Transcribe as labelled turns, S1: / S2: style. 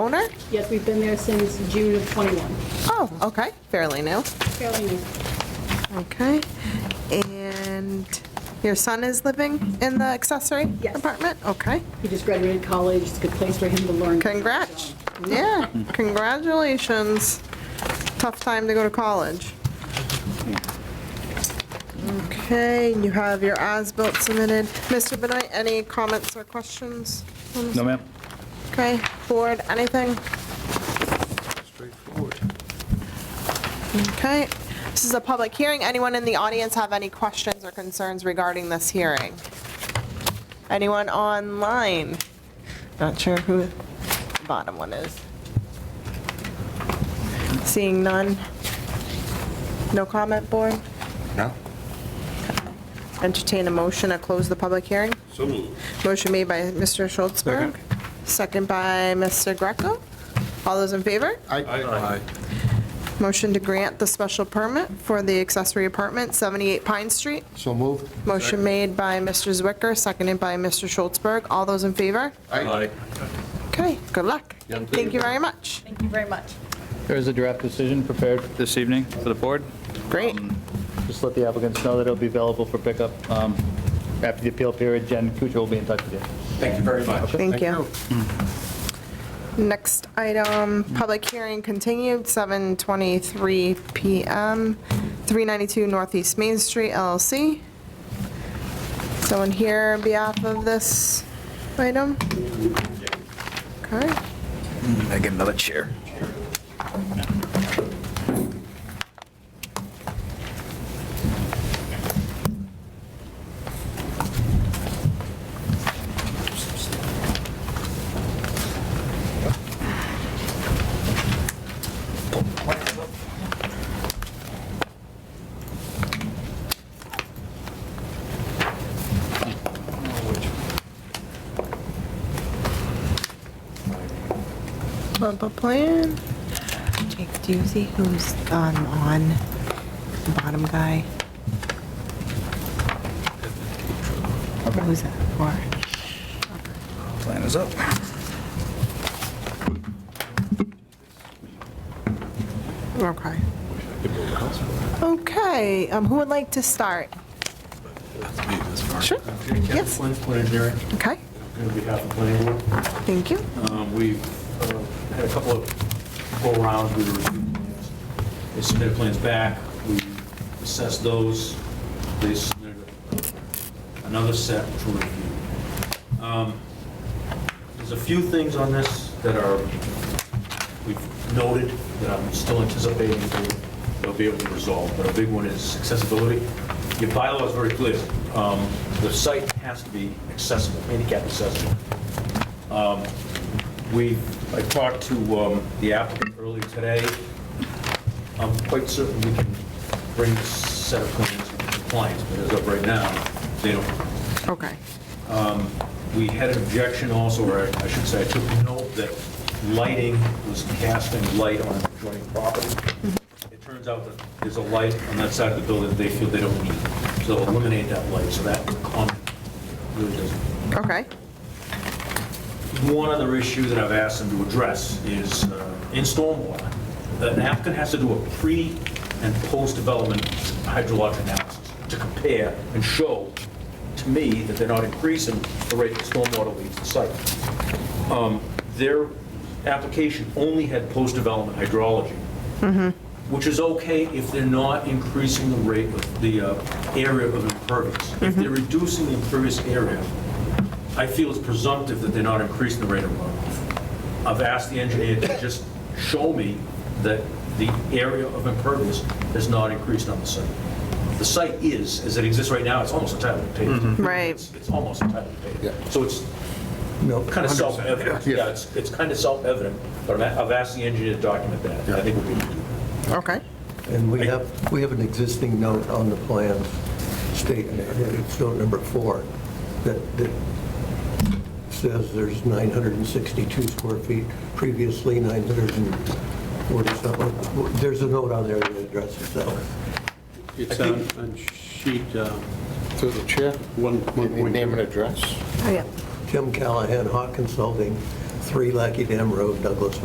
S1: owner?
S2: Yes, we've been there since June of '21.
S1: Oh, okay, fairly new.
S2: Fairly new.
S1: Okay. And your son is living in the accessory
S2: Yes.
S1: apartment? Okay.
S2: He just graduated college. It's a good place for him to learn.
S1: Congrats. Yeah, congratulations. Tough time to go to college. Okay, you have your as-built submitted. Mr. Benoit, any comments or questions?
S3: No, ma'am.
S1: Okay, board, anything?
S4: Straightforward.
S1: Okay, this is a public hearing. Anyone in the audience have any questions or concerns regarding this hearing? Anyone online? Not sure who the bottom one is. Seeing none? No comment, board?
S4: No?
S1: Entertain a motion to close the public hearing?
S5: So moved.
S1: Motion made by Mr. Schultzberg, second by Mr. Greco. All those in favor?
S4: Aye.
S1: Motion to grant the special permit for the accessory apartment, 78 Pine Street.
S4: So moved?
S1: Motion made by Mr. Zwicker, seconded by Mr. Schultzberg. All those in favor?
S4: Aye.
S1: Okay, good luck.
S4: Yeah, thank
S1: Thank you
S4: you.
S1: very much.
S2: Thank you very much.
S3: There is a draft decision prepared this evening for the board. Um,
S1: Great.
S3: Just let the applicants know that it'll be available for pickup um, after the appeal period. Jen Kuchar will be in touch with you.
S5: Thank you very much.
S1: Thank you. Mm. Next item, public hearing continued, 7:23 PM, 392 Northeast Main Street LLC. Someone here on behalf of this item? Okay.
S3: I get another chair.
S1: Bump a plan. Jake, do you see who's um, on the bottom guy? Who's that for?
S3: Plan is up.
S1: Okay. Okay, um, who would like to start? Sure. Yes.
S6: Flynn, planning engineering,
S1: Okay,
S6: on behalf of planning board.
S1: thank you.
S6: Um, We've uh, had a couple of go-arounds, we reviewed plans. They submitted plans back, we assessed those, they submitted another set for review. Um, There's a few things on this that are, we've noted, that I'm still anticipating they'll- they'll be able to resolve, but a big one is accessibility. Your bylaw is very clear, Um, the site has to be accessible, handicap accessible. We, I talked to um, the applicant earlier today. I'm quite certain we can bring this set of plans into compliance, but as of right now, they don't.
S1: Okay,
S6: We had an objection also, or I should say, I took note that lighting was casting light on adjoining property. It turns out that there's a light on that side of the building that they feel they don't need, so eliminate that light, so that comment really doesn't
S1: okay,
S6: One other issue that I've asked them to address is uh, in stormwater, an applicant has to do a pre and post-development hydrologic analysis to compare and show to me that they're not increasing the rate that stormwater leaves the site. Um, Their application only had post-development hydrology, which is okay if they're not increasing the rate of the uh, area of impervious. If they're reducing the impervious area, I feel it's presumptive that they're not increasing the rate of runoff. I've asked the engineer to just show me that the area of impervious has not increased on the site. The site is, as it exists right now, it's almost entirely paved.
S1: Right.
S6: It's it's almost entirely
S4: Yeah.
S6: paved. So it's kind of self-evident. Yeah, it's, it's kind of self-evident, but I'm a- I've asked the engineer to document that. I think we need to do that.
S1: okay.
S7: And we have, we have an existing note on the plans stating, it's note number four, that, that says there's 962 square feet, previously 940 something. There's a note on there that addresses that.
S8: It's on on sheet uh,
S4: Through the chair,
S8: one.
S4: name and
S8: point.
S4: address.
S1: Oh, yeah.
S7: Tim Callahan, Hawk Consulting, 3 Lackey Dam Road, Douglas,